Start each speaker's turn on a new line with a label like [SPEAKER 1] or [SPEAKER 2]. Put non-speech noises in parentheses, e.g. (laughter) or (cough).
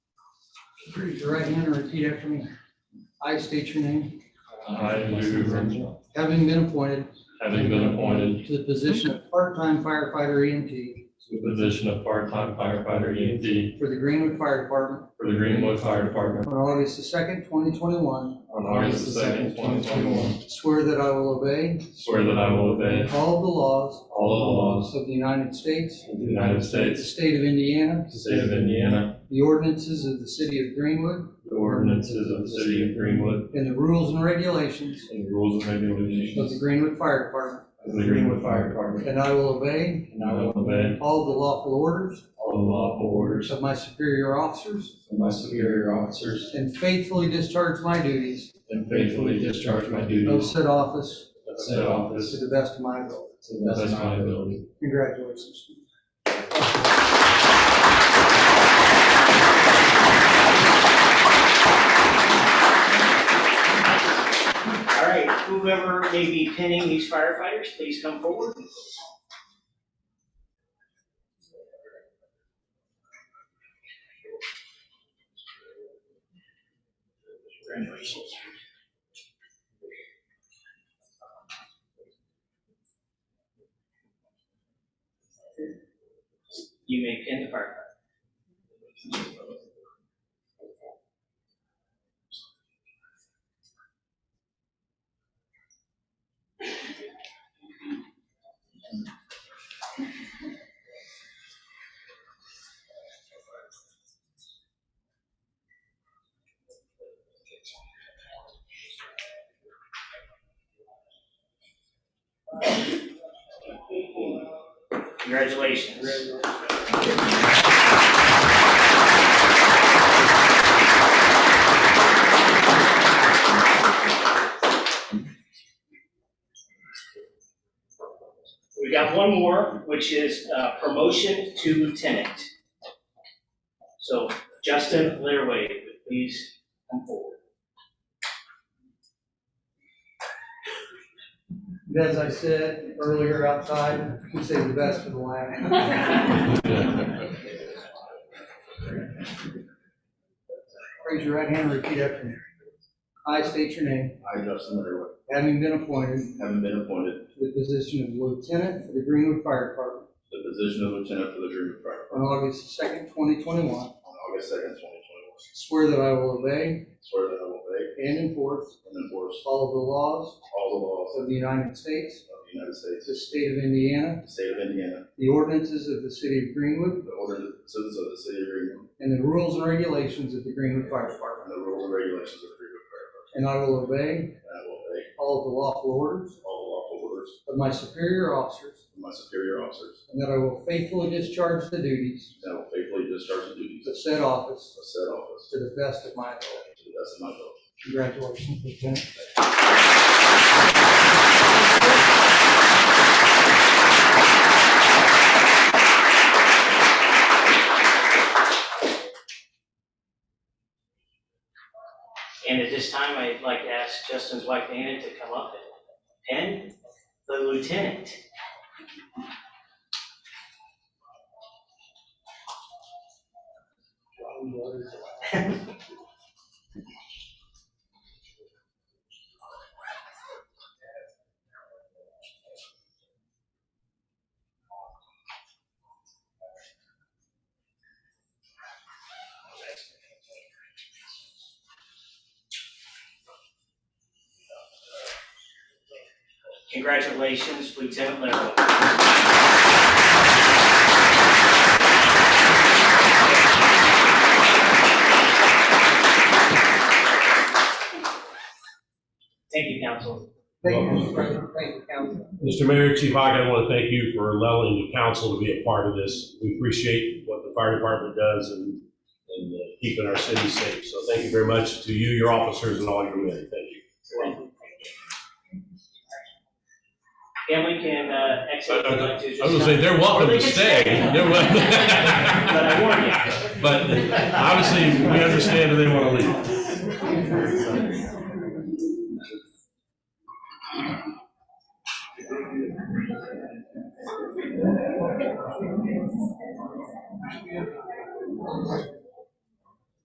[SPEAKER 1] Raise your right hand and repeat after me. I state your name.
[SPEAKER 2] I, Lou Grunbaum,
[SPEAKER 1] Having been appointed
[SPEAKER 2] having been appointed
[SPEAKER 1] to the position of part-time firefighter E EMT
[SPEAKER 2] to the position of part-time firefighter EMT
[SPEAKER 1] for the Greenwood Fire Department
[SPEAKER 2] for the Greenwood Fire Department
[SPEAKER 1] on August the second, twenty twenty-one,
[SPEAKER 2] on August the second, twenty twenty-one,
[SPEAKER 1] swear that I will obey
[SPEAKER 2] swear that I will obey
[SPEAKER 1] all of the laws
[SPEAKER 2] all of the laws
[SPEAKER 1] of the United States,
[SPEAKER 2] of the United
[SPEAKER 1] the
[SPEAKER 2] States,
[SPEAKER 1] state of Indiana,
[SPEAKER 2] the state of Indiana,
[SPEAKER 1] the ordinances of the city of Greenwood,
[SPEAKER 2] the ordinances of the city of Greenwood,
[SPEAKER 1] and the rules and regulations
[SPEAKER 2] and the rules and
[SPEAKER 1] of the
[SPEAKER 2] regulations
[SPEAKER 1] Greenwood Fire Department,
[SPEAKER 2] of the Greenwood Fire Department.
[SPEAKER 1] and I will obey
[SPEAKER 2] And I will obey
[SPEAKER 1] all the lawful orders
[SPEAKER 2] all the lawful orders
[SPEAKER 1] of my superior officers
[SPEAKER 2] of my superior officers
[SPEAKER 1] and faithfully discharge my duties
[SPEAKER 2] and faithfully discharge my
[SPEAKER 1] of
[SPEAKER 2] duties
[SPEAKER 1] said office
[SPEAKER 2] of said office
[SPEAKER 1] to
[SPEAKER 2] to
[SPEAKER 1] the best of my ability.
[SPEAKER 2] the best of my ability.
[SPEAKER 1] Congratulations.
[SPEAKER 3] All right, whoever may be pinning these firefighters, please come forward. Congratulations. You may pin the firefighter. Congratulations. We've got one more, which is uh, promotion to lieutenant. So Justin Laraway, please come forward.
[SPEAKER 1] And As I said earlier outside, we say the best for the last. Raise your right hand and repeat after me. I state your name,
[SPEAKER 4] I, Justin Underwood,
[SPEAKER 1] having been appointed
[SPEAKER 4] having been appointed
[SPEAKER 1] to the position of lieutenant for the Greenwood Fire Department
[SPEAKER 4] to the position of lieutenant for the Greenwood Fire
[SPEAKER 1] on August second, twenty twenty-one,
[SPEAKER 4] on August second, twenty twenty-one.
[SPEAKER 1] swear that I will obey
[SPEAKER 4] Swear that I will obey
[SPEAKER 1] and enforce
[SPEAKER 4] and enforce
[SPEAKER 1] all of the laws
[SPEAKER 4] all the laws
[SPEAKER 1] of the United States,
[SPEAKER 4] of the United States,
[SPEAKER 1] the state of Indiana,
[SPEAKER 4] the state of Indiana,
[SPEAKER 1] the ordinances of the city of Greenwood,
[SPEAKER 4] the ordinances of the city of Greenwood,
[SPEAKER 1] and the rules and regulations of the Greenwood Fire Department.
[SPEAKER 4] and the rules and regulations of the Greenwood Fire Department.
[SPEAKER 1] And I will obey
[SPEAKER 4] And I will obey
[SPEAKER 1] all of the lawful orders
[SPEAKER 4] all the lawful orders
[SPEAKER 1] of my superior officers,
[SPEAKER 4] of my superior officers,
[SPEAKER 1] and that I will faithfully discharge the duties
[SPEAKER 4] and I will faithfully discharge the duties
[SPEAKER 1] of said office
[SPEAKER 4] of said office
[SPEAKER 1] to the best of my ability.
[SPEAKER 4] to the best of my ability.
[SPEAKER 1] Congratulations, Lieutenant.
[SPEAKER 3] And at this time, I'd like to ask Justin's wife Anna to come up and pin the lieutenant. Congratulations, Lieutenant Laroe. Thank you, counsel.
[SPEAKER 1] Thank you, Mr. President. Thank you, Council.
[SPEAKER 5] Mr. Mayor, Chief Hogg, I want to thank you for allowing the council to be a part of this. We appreciate what the fire department does and, and uh, keeping our city safe. So thank you very much to you, your officers, and all your men. Thank you.
[SPEAKER 3] Family can uh, exit. if they'd like to, just-
[SPEAKER 5] I was gonna say, they're welcome
[SPEAKER 3] Or they
[SPEAKER 5] to
[SPEAKER 3] can
[SPEAKER 5] stay. They're wel- (laughs)
[SPEAKER 3] But I warn you.
[SPEAKER 5] But obviously, we understand that they want to leave.